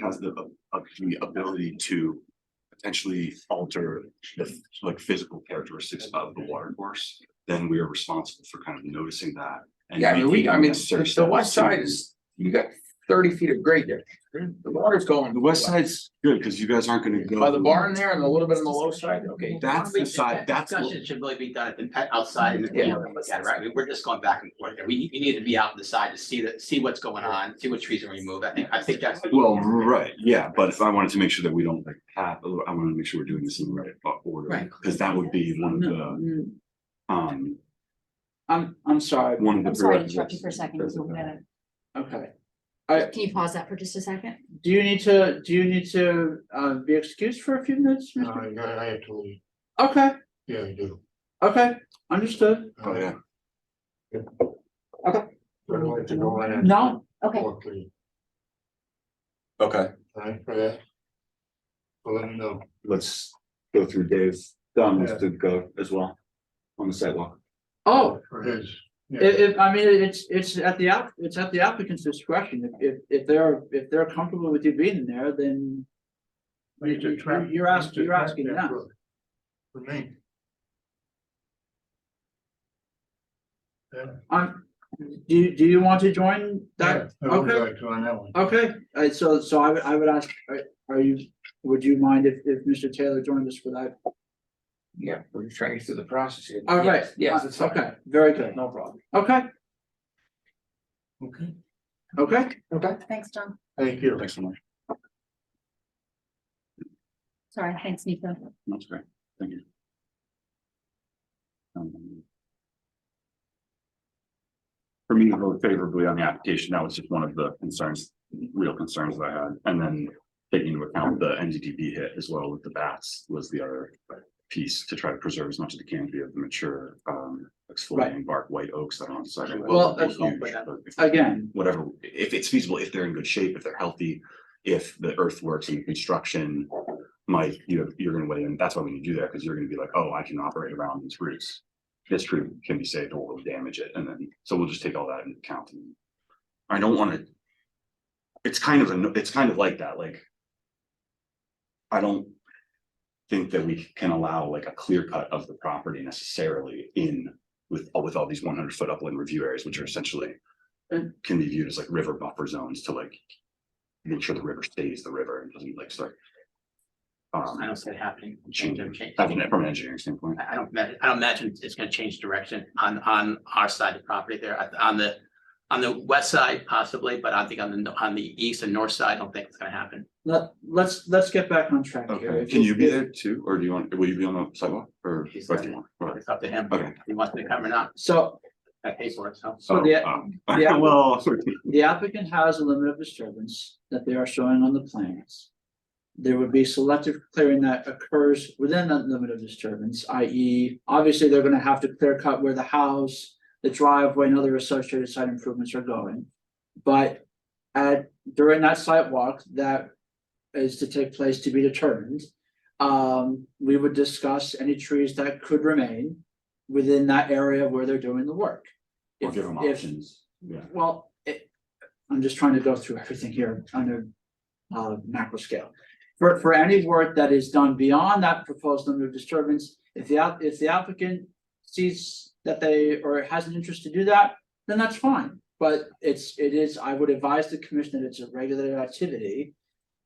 has the, uh, the ability to potentially alter the, like, physical characteristics of the water course, then we are responsible for kind of noticing that. and Yeah, I mean, we, I making mean, necessary the west steps side to- is, you got thirty feet of grade there. The water's going. The west side's good, because you guys aren't gonna go. By the barn there and a little bit on the low side, okay. That's the side, that's what, Discussion should really be done at the pet outside and the Yeah. field, look at it, right? I mean, We're just going back and forth there. We, we need to be out on the side to see the, see what's going on, see what trees are removed. I think, I think that's. well, right, yeah, but if I wanted to make sure that we don't like have, oh, I wanna make sure we're doing this in the right order. Right. Because that would be one of the, Mm, um, I'm, I'm sorry, one of the. I'm sorry to interrupt you for a second. That's so okay. we gotta- okay. I- Can you pause that for just a second? Do you need to, do you need to, uh, be excused for a few minutes? Mr. No, I, I- I have to leave. Okay, Yeah, I do. okay, understood. Oh, yeah. I don't like to go in. No, Okay, Quickly, Okay, right, for that. So let me know. let's go through Dave's, Don wants to go as well on the sidewalk. oh, For his. yeah. It, it, I mean, it's, it's at the app, it's at the applicant's discretion. If, if, if they're, if they're comfortable with you being there, then. It's a trap- You're asking, it's a you're trap asking there them. for- For me. Yeah. I'm, do, you- do you want to join that? Yeah, I would Okay. like to on that one. Okay, uh, so, so I would, I would ask, are, are you, would you mind if, if Mr. Taylor joined us for that? Yeah, we're just trying to get through the process here. All right. Yes, Yes, it's fine. Okay, very good, No problem. okay, Okay, okay, thanks, John. thank you. Thanks so much. Sorry, thanks, Nico. That's great, thank you. Um, For me, to vote favorably on the application, that was just one of the concerns, real concerns that I had, and then taking into account the NDDB hit as well with the bats was the other piece to try to preserve as much as the canopy of the mature, um, exfoliating bark white oaks that are on the side. of the road. Well, They're that's not huge, bad. but if- again, whatever, if it's feasible, if they're in good shape, if they're healthy, if the earthworks and construction. Mike, you, you're gonna weigh in, that's why we need to do that, because you're gonna be like, oh, I can operate around these roots. This tree can be saved or we'll damage it, and then, so we'll just take all that into account. and I don't wanna. It's kind of, a it's kind of like that, like. I don't. Think that we can allow like a clear cut of the property necessarily in with, uh, with all these one hundred foot upland review areas, which are essentially Mm. can be viewed as like river buffer zones to like. Make sure the river stays the river and doesn't like start. I Um, don't see it happening. Change, changing, change. I mean, from an engineering standpoint, I I don't, ma- I don't imagine it's gonna change direction on, on our side of the property there, At- on the, on the west side possibly, but I think on the, on the east and north side, I don't think it's gonna happen. let, let's, let's get back on track here. okay, If can you be there too, or do you want, will you be on the sidewalk or? He's or not. do you want- or- It's up to him. Okay. If He wants me to come or not, So, I pay for it, so. so the, Oh, oh. yeah. Well, the applicant has a limit of disturbance that they are showing on the plans. There would be selective clearing that occurs within that limit of disturbance, i.e., obviously, they're gonna have to clear cut where the house, the driveway, and other associated site improvements are going. But at, during that site walk, that is to take place to be determined. Um, we would discuss any trees that could remain within that area where they're doing the work. Or If- give them if- options, yeah, well, it, I'm just trying to go through everything here on a uh, macro scale. For, for any work that is done beyond that proposed limit of disturbance, if the, app- if the applicant sees that they, or has an interest to do that, then that's fine. But it's, it is, I would advise the commission that it's a regulated activity.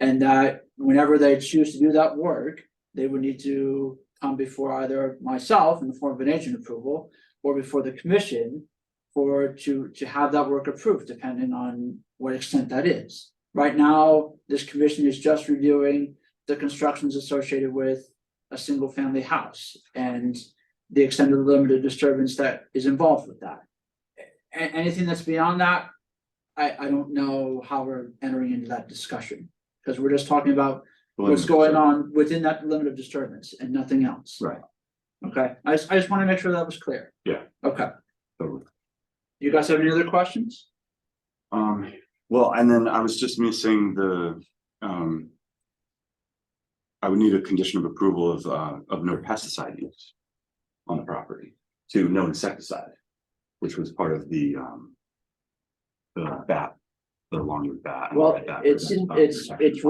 And that whenever they choose to do that work, they would need to come before either myself in the form of an agent approval or before the commission for to to have that work approved, depending on what extent that is. Right now, this commission is just reviewing the constructions associated with a single family house and the extent of the limited disturbance that is involved with that. A- anything that's beyond that, I I don't know how we're entering into that discussion, because we're just talking about what's going on within that limit of disturbance and nothing else. Right. Okay, I just I just want to make sure that was clear. Yeah. Okay. So- You guys have any other questions? Um, well, and then I was just missing the, um. I would need a condition of approval of, uh, of no pesticide use. On the property to no insecticide, which was part of the, um. The bat the longer that. Well, at that it's, perspective. uh, it's, it's